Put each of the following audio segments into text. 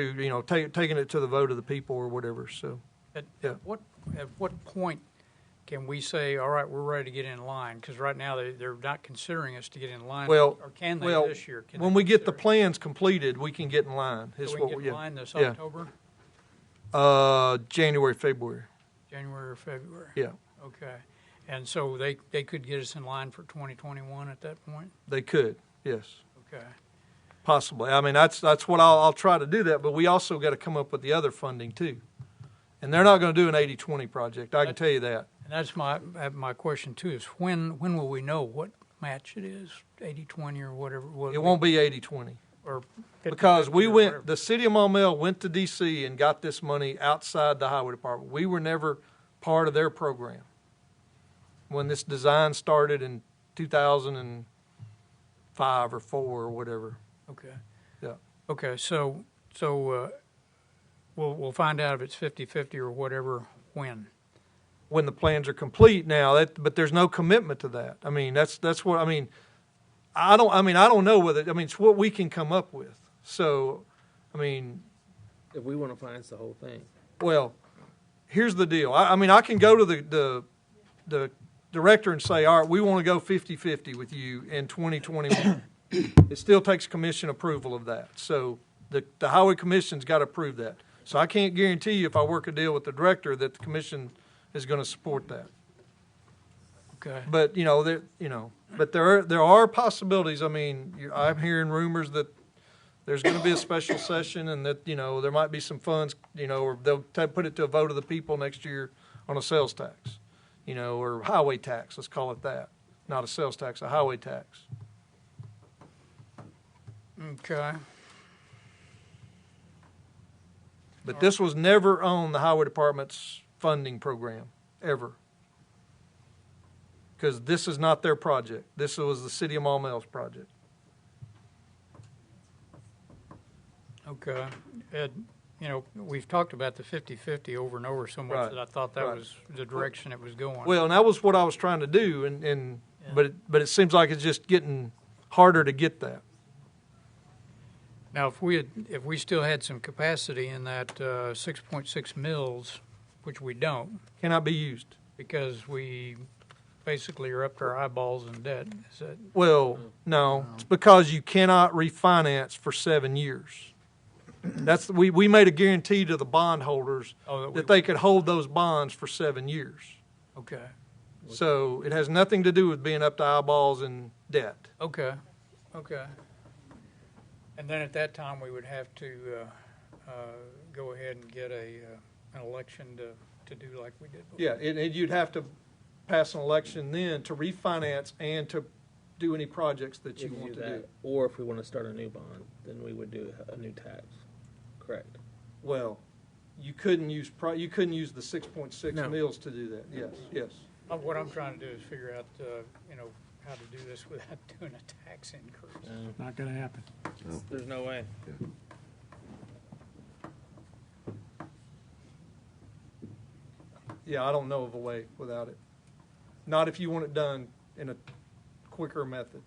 you know, ta- taking it to the vote of the people or whatever, so. At, Yeah. at what, at what point can we say, all right, we're ready to get in line? Because right now, they, they're not considering us to get in line. Well, Or can they well, this year? Can When they we get the consider plans completed, we can get in line. us? is So we what can get yeah. in line this Yeah. October, Uh, January, February, January or February? yeah. Okay. And so they, they could get us in line for 2021 at that point? They could, yes, Okay. possibly. I mean, that's, that's what I'll, I'll try to do that, but we also got to come up with the other funding too. And they're not going to do an 80-20 project, I can tell you that. And that's my, uh, my question too, is when, when will we know what match it is, 80-20 or whatever? what It we- won't be 80-20. or 50-50 Because we or went, whatever. the city of Mont Mel went to DC and got this money outside the highway department. We were never part of their program. When this design started in two thousand and five or four or whatever. Okay. Yeah. Okay, so, so, uh, we'll, we'll find out if it's fifty-fifty or whatever when. When the plans are complete now, that, but there's no commitment to that. I mean, that's, that's what, I mean, I don't, I mean, I don't know whether, I mean, it's what we can come up with. So, I mean, If we want to finance the whole thing. Well, here's the deal. I, I mean, I can go to the, the, the director and say, all right, we want to go 50-50 with you in 2021. It still takes commission approval of that. So the, the highway commission's got to approve that. So I can't guarantee you if I work a deal with the director that the commission is going to support that. Okay, But, you know, there, you know, but there are, there are possibilities. I mean, you- I'm hearing rumors that there's gonna be a special session and that, you know, there might be some funds, you know, or they'll ta- put it to a vote of the people next year on a sales tax, you know, or highway tax, let's call it that. Not a sales tax, a highway tax. okay, But this was never on the highway department's funding program, ever. Because this is not their project. This was the city of Mall Mel's project. okay. Ed, you know, we've talked about the fifty-fifty over and over so Right, much that I thought that right. was the direction it was going. Well, and that was what I was trying to do, and, and but it, but it seems like it's just getting harder to get that. Now, if we had, if we still had some capacity in that, uh, six point six mils, which we don't, Cannot be used. because we basically are up to our eyeballs in debt, is that, Well, Hmm. no, it's because you cannot refinance for seven years. That's we we made a guarantee to the bondholders oh, that we- that they could hold those bonds for seven years. okay, So it has nothing to do with being up to eyeballs in debt. Okay, okay. And then at that time, we would have to uh, uh, go ahead and get a, uh, an election to, to do like we did. before. Yeah, and, and you'd have to pass an election then to refinance and to do any projects that you if we want to that, do. Or if we want to start a new bond, then we would do a new tax. Correct. Well, you couldn't use, pri- you couldn't use the six point six No. mills to do that, yes, yes. Uh, What I'm trying to do is figure out, uh, you know, how to do this without doing a tax increase. Not gonna happen. There's no way. Yeah, I don't know of a way without it. Not if you want it done in a quicker method.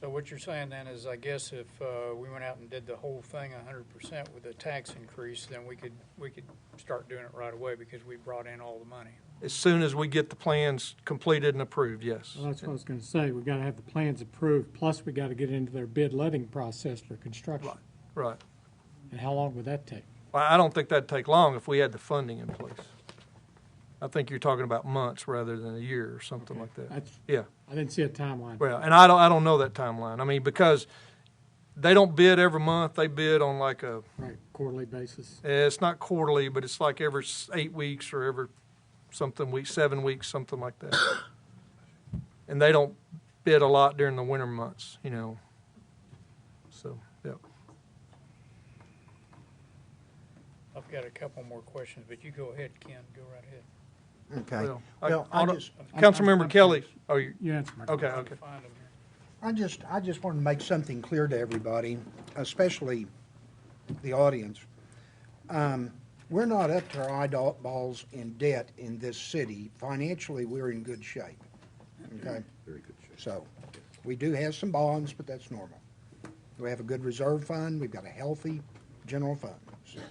So what you're saying then is, I guess if uh, we went out and did the whole thing hundred percent with a tax increase, then we could, we could start doing it right away because we brought in all the money. As soon as we get the plans completed and approved, yes. Well, that's what I was gonna say. We gotta have the plans approved, plus we gotta get into their bid letting process for construction. Right. And how long would that take? Well, I don't think that'd take long if we had the funding in place. I think you're talking about months rather than a year or something like that. That's, Yeah. I didn't see a timeline. Well, and I don't, I don't know that timeline. I mean, because they don't bid every month, they bid on like a Right, quarterly basis. Eh, It's not quarterly, but it's like every s- eight weeks or every something week, seven weeks, something like that. And they don't bid a lot during the winter months, you know. So, yeah. I've got a couple more questions, but you go ahead, Ken, go right ahead. Okay. Well, I- Well, I I'll- just, Councilmember Kelly, oh, you, You answer my question. okay, okay. Find 'em here. I just, I just want to make something clear to everybody, especially the audience. Um, We're not up to our eyeballs in debt in this city. Financially, we're in good shape, okay? Very good shape. So, we do have some bonds, but that's normal. We have a good reserve fund, we've got a healthy general funds.